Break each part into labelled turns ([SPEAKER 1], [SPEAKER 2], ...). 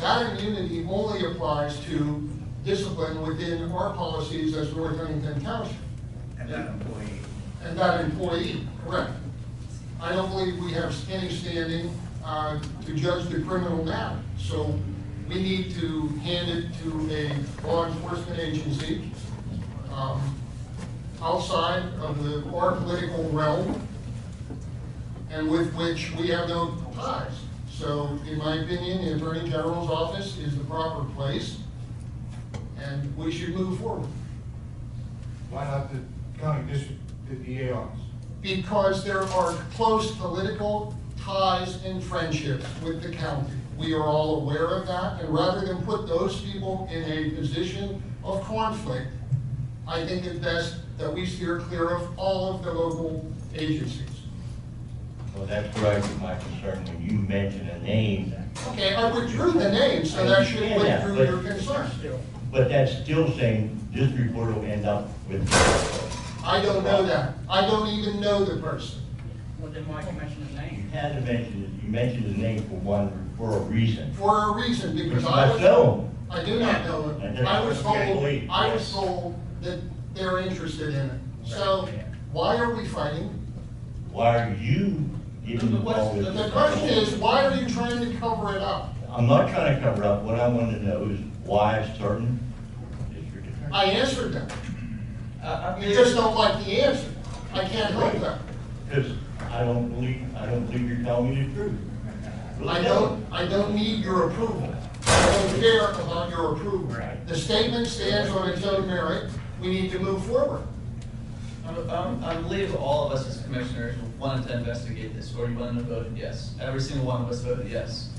[SPEAKER 1] That immunity only applies to discipline within our policies as North Huntington Township
[SPEAKER 2] and that employee.
[SPEAKER 1] and that employee, correct. I don't believe we have any standing uh, to judge the criminal matter. So we need to hand it to a law enforcement agency um, outside of the, our political realm and with which we have no ties. So in my opinion, the Attorney General's office is the proper place and we should move forward.
[SPEAKER 3] Why not the county district, the DA office?
[SPEAKER 1] because there are close political ties and friendships with the county. We are all aware of that, and rather than put those people in a position of conflict, I think it's best that we steer clear of all of the local agencies.
[SPEAKER 4] Well, that's where I get my concern, when you mention a name,
[SPEAKER 1] Okay, I withdrew the name, so that should withdrew your concern.
[SPEAKER 4] but that's still saying this report will end up with.
[SPEAKER 1] I don't know that. I don't even know the person.
[SPEAKER 5] Well, then why you mention his
[SPEAKER 4] You
[SPEAKER 5] name?
[SPEAKER 4] had to mention, it. you mentioned his name for one, for a reason.
[SPEAKER 1] For a reason, because I
[SPEAKER 4] I
[SPEAKER 1] was.
[SPEAKER 4] know,
[SPEAKER 1] I do not know it. I was told, I was told that they're interested in it. So why are we fighting?
[SPEAKER 4] why are you getting involved with?
[SPEAKER 1] The question is, why are you trying to cover it up?
[SPEAKER 4] I'm not trying to cover up, what I want to know is why a certain district attorney.
[SPEAKER 1] I answered that.
[SPEAKER 4] Uh, I- I mean,
[SPEAKER 1] You just don't like the answer. I can't help that.
[SPEAKER 4] Because I don't believe, I don't believe you're telling me the truth. Really
[SPEAKER 1] I don't, I don't need your approval. I don't care about your approval.
[SPEAKER 4] Right.
[SPEAKER 1] The statement stands on its own merit. We need to move forward.
[SPEAKER 6] Um, um, I believe all of us as commissioners wanted to investigate this, or you wanted to vote yes. Every single one of us voted yes.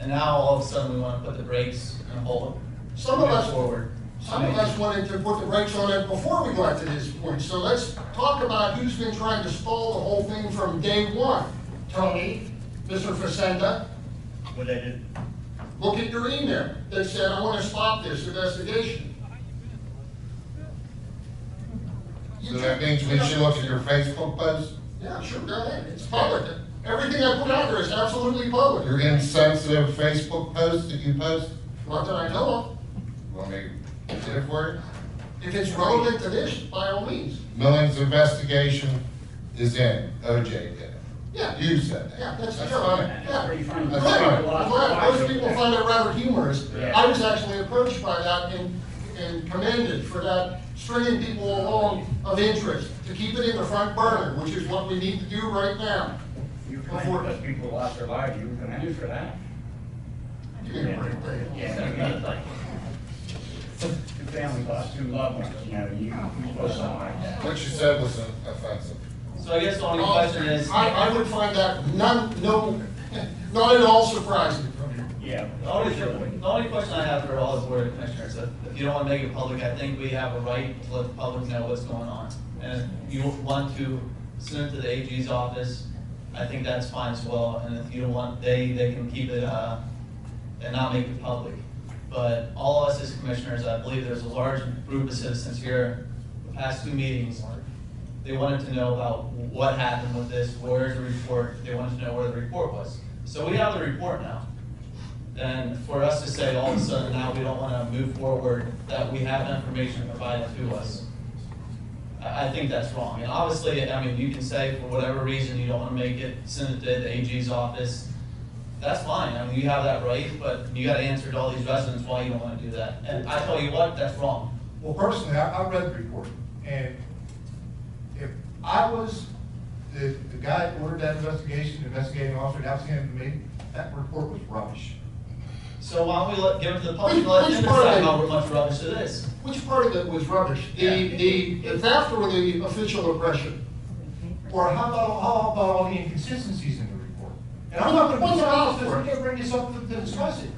[SPEAKER 6] And now all of a sudden, we want to put the brakes and hold it.
[SPEAKER 1] Some of us-
[SPEAKER 6] Move Forward.
[SPEAKER 1] Some of us wanted to put the brakes on it before we got to this point, so let's talk about who's been trying to stall the whole thing from day one. Tony, Mr. Facenda,
[SPEAKER 4] What I did,
[SPEAKER 1] look at your email that said, I want to stop this investigation.
[SPEAKER 3] So that means we should look at your Facebook post,
[SPEAKER 1] Yeah, sure, go ahead, it's public. Everything I put out there is absolutely public,
[SPEAKER 3] your insensitive Facebook post that you post?
[SPEAKER 1] not that I know of.
[SPEAKER 3] Want me to get it for you?
[SPEAKER 1] If it's relevant to this, by all means,
[SPEAKER 3] Millen's investigation is in, OJ did it.
[SPEAKER 1] yeah.
[SPEAKER 3] You said that.
[SPEAKER 1] Yeah, that's,
[SPEAKER 3] That's
[SPEAKER 1] yeah,
[SPEAKER 3] fine.
[SPEAKER 1] yeah.
[SPEAKER 5] Pretty funny.
[SPEAKER 1] Good,
[SPEAKER 3] That's
[SPEAKER 1] I'm
[SPEAKER 3] fine.
[SPEAKER 1] glad, most people find it rather humorous.
[SPEAKER 5] Yeah.
[SPEAKER 1] I was actually approached by that and, and commended for that, stringing people along of interest, to keep it in the front burner, which is what we need to do right now.
[SPEAKER 2] You kind of let people lost their lives, you were commended for that.
[SPEAKER 1] You did a great thing.
[SPEAKER 2] Yeah. Two families lost two loved ones, you know, you, you post something like that.
[SPEAKER 3] What you said was offensive.
[SPEAKER 6] So I guess the only question is.
[SPEAKER 1] I, I would find that none, no, not at all surprising.
[SPEAKER 2] Yeah. Oh,
[SPEAKER 6] The only, the only question I have for all the board of commissioners, if if you don't want to make it public, I think we have a right to let the public know what's going on. And if you want to send it to the AG's office, I think that's fine as well. And if you don't want, they, they can keep it, uh, and not make it public. But all of us as commissioners, I believe there's a large group of citizens here, the past two meetings, they wanted to know about what happened with this, where's the report, they wanted to know where the report was. So we have the report now. And for us to say all of a sudden now we don't want to move forward, that we have information provided to us, I, I think that's wrong. And obviously, I mean, you can say for whatever reason you don't want to make it, send it to the AG's office. That's fine, I mean, you have that right, but you got to answer to all these residents why you don't want to do that. And I tell you what, that's wrong.
[SPEAKER 3] Well, personally, I, I read the report, and if I was the, the guy that ordered that investigation, investigating officer, that was him to me, that report was rubbish.
[SPEAKER 6] So why don't we let, give it to the public,
[SPEAKER 1] Which-
[SPEAKER 6] let them
[SPEAKER 1] which part of
[SPEAKER 6] decide
[SPEAKER 1] it?
[SPEAKER 6] how much rubbish it is.
[SPEAKER 1] Which part of it was rubbish? The, the, the theft or the official oppression?
[SPEAKER 3] Or how about, how about all the inconsistencies in the report? And I'm not gonna,
[SPEAKER 1] What's
[SPEAKER 3] what's
[SPEAKER 1] the
[SPEAKER 3] out,
[SPEAKER 1] report?
[SPEAKER 3] because we can't bring this up to to discuss it.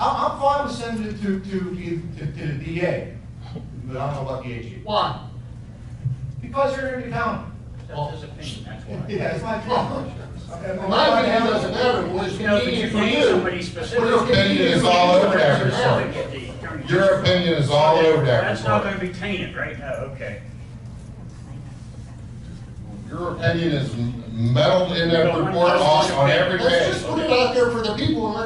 [SPEAKER 3] I'm, I'm fine with sending it to, to, the- to, to the DA, but I don't know about the AG.
[SPEAKER 1] Why?
[SPEAKER 3] Because you're in the county.
[SPEAKER 5] That's his opinion, that's why.
[SPEAKER 3] Yeah, it's my opinion. Okay, well,
[SPEAKER 1] My opinion doesn't matter, what is
[SPEAKER 5] You know, but you
[SPEAKER 1] convenient for
[SPEAKER 5] name somebody
[SPEAKER 1] you.
[SPEAKER 5] specific.
[SPEAKER 1] Your opinion is
[SPEAKER 3] all over there,
[SPEAKER 5] Specific
[SPEAKER 3] sir.
[SPEAKER 5] at the attorney.
[SPEAKER 3] Your opinion is all over there,
[SPEAKER 5] That's not
[SPEAKER 3] sir.
[SPEAKER 5] gonna be tainted right now, okay.
[SPEAKER 3] Your opinion is meddled in that report on, on every
[SPEAKER 1] Let's
[SPEAKER 3] page.
[SPEAKER 1] just put it out there for the people and let